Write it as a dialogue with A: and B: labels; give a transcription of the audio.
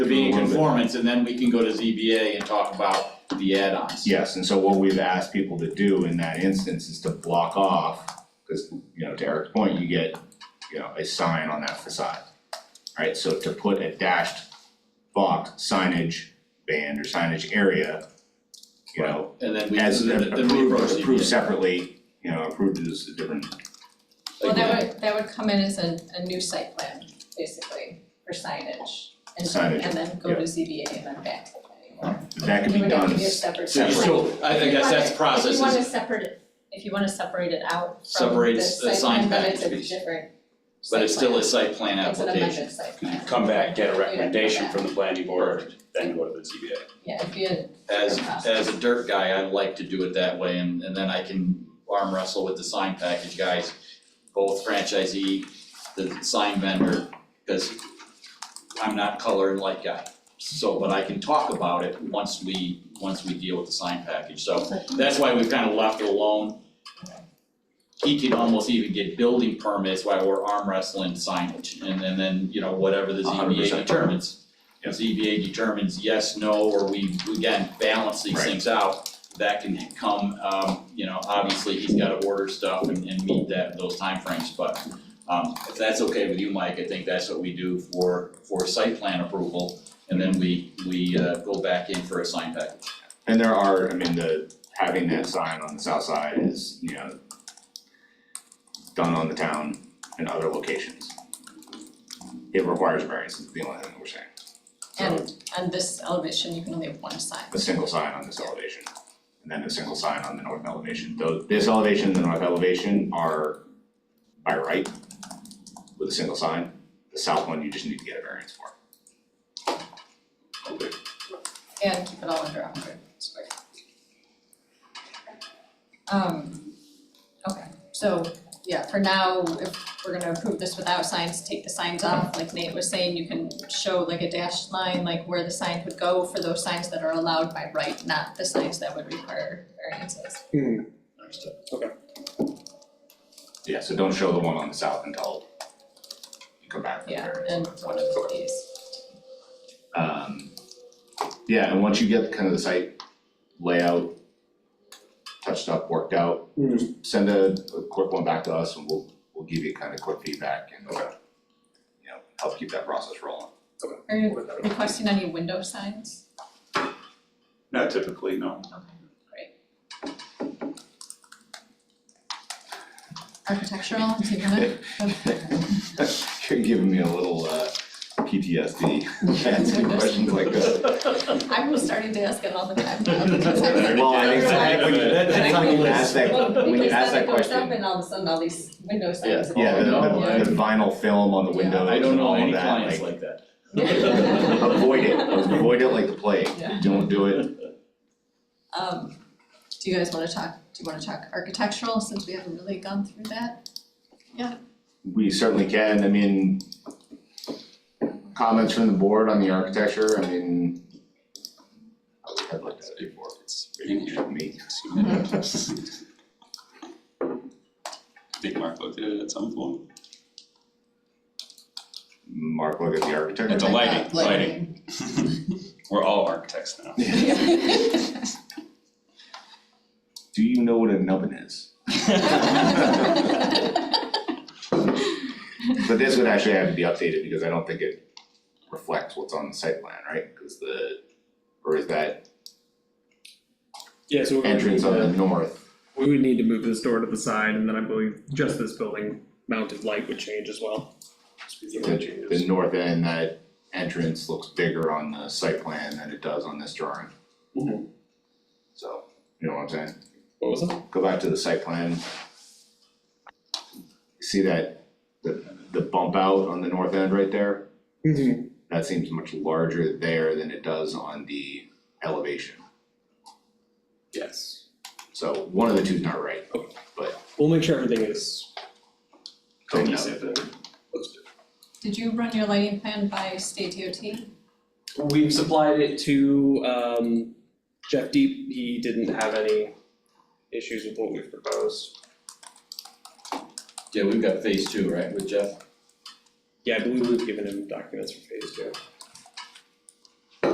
A: be in
B: a little bit.
A: conformance, and then we can go to ZBA and talk about the add-ons.
B: Yes, and so what we've asked people to do in that instance is to block off, cause you know, to Eric's point, you get, you know, a sign on that facade. Right, so to put a dashed box signage band or signage area, you know,
A: And then we,
B: as
A: and then then we approach
B: approved,
A: ZBA.
B: approved separately, you know, approved is a different,
C: Well,
A: Like,
C: that would, that would come in as a, a new site plan, basically, for signage. And
B: Signage,
C: and then go
B: yeah.
C: to ZBA and then back to the planning board.
B: that could be
C: You would have
B: done
C: to do a
B: as
C: separate.
A: So you still, I I guess that's
C: If
A: process
C: you wanna
A: is,
C: separate it, if you wanna separate it out from
A: Separate
C: the
A: s- the
C: site
A: sign
C: plan, then it's a
A: package.
C: different
A: but it's
C: site plan.
A: still a site plan
C: It's an
A: application.
C: amended site plan.
D: come back, get a
C: You'd have to come
D: recommendation
C: back.
D: from the planning board, then go to the ZBA.
C: Yeah, if you,
A: As, as a dirt guy, I like to do it that way, and, and then I can arm wrestle with the sign package guys, both franchisee, the sign vendor, because I'm not color and light guy. So, but I can talk about it once we, once we deal with the sign package, so that's why we've kind of left it alone. He could almost even get building permits while we're arm wrestling signage, and, and then, you know, whatever the
B: A hundred
A: ZBA
B: percent.
A: determines.
B: Yep.
A: ZBA E determines yes, no, or we, we again, balance these
B: Right.
A: things out, that can come, um, you know, obviously, he's gotta order stuff and, and meet that, those timeframes, but um, if that's okay with you, Mike, I think that's what we do for, for site plan approval, and then we, we, uh, go back in for a sign package.
B: And there are, I mean, the, having that sign on the south side is, you know, done on the town in other locations. It requires variance, is the only thing that we're saying,
C: and, and this elevation, you can only have one sign.
B: a single sign on this elevation, and then a single sign on the north elevation, though this elevation and the north elevation are by right with a single sign, the south one you just need to get a variance for.
C: And keep it all under hundred square. feet. Um, okay, so, yeah, for now, if we're gonna approve this without signs, take the signs off, like Nate was saying, you can show like a dashed line, like where the sign would go for those signs that are allowed by right, not the signs that would require variances.
A: Understood.
B: Yeah, so don't show the one on the south until you come back for the
C: Yeah,
B: variance.
C: and one of
B: Okay.
C: these.
B: Um, yeah, and once you get kind of the site layout touched up, worked out, just send a, a quick one back to us and we'll, we'll give you kind of quick feedback and uh, you know, help keep that process rolling.
C: Are you requesting any window signs?
D: Not typically, no.
C: Architectural, do you want it?
B: You're giving me a little, uh, PTSD, asking questions like that.
C: I'm starting to ask it all the time now because I'm like,
B: Well, I think, I think when you,
A: That-
B: I
A: that's
B: think when you
A: on the
B: ask that,
C: Well,
B: when you
C: because
B: ask that
C: then it goes up
B: question,
C: and all of a sudden all these window
A: Yeah.
C: signs. are
B: yeah,
C: all-
A: Oh,
B: the,
A: no.
B: the, the vinyl film on the
C: Yeah.
B: windows
A: I don't
B: and
A: know
B: all
A: any
B: of that,
A: clients
B: like,
A: like that.
B: avoid it, avoid it like the plague,
C: Yeah.
B: don't do it.
C: Um, do you guys wanna talk, do you wanna talk architectural since we haven't really gone through that?
B: We certainly can, I mean, comments from the board on the architecture, I mean, I've looked at it before, it's pretty new to me.
E: Big Mark looked at it at some point.
B: Mark, look at the architecture.
E: At the lighting, lighting. We're all architects now.
B: Do you know what a nubbin is? But this would actually have to be updated because I don't think it reflects what's on the site plan, right? Cause the, or is that
F: Yeah, so we would
B: entrance
F: need
B: on the
F: to-
B: north?
F: We would need to move this door to the side, and then I believe just this building mounted light would change as well.
B: The the north end, that entrance looks bigger on the site plan than it does on this drawing. So, you know what I'm saying?
F: What was it?
B: go back to the site plan. See that, the, the bump out on the north end right there?
F: Mm-hmm.
B: That seems much larger there than it does on the elevation.
D: Yes.
B: So one of the two's not right, but
F: We'll make sure everything is.
B: don't know.
D: Cohesive and looks good.
C: Did you run your lighting plan by state DOT?
F: We've supplied it to um, Jeff Deep. He didn't have any issues with what we've proposed.
A: Yeah, we've got phase two, right, with Jeff?
F: Yeah, I believe we've given him documents for phase two.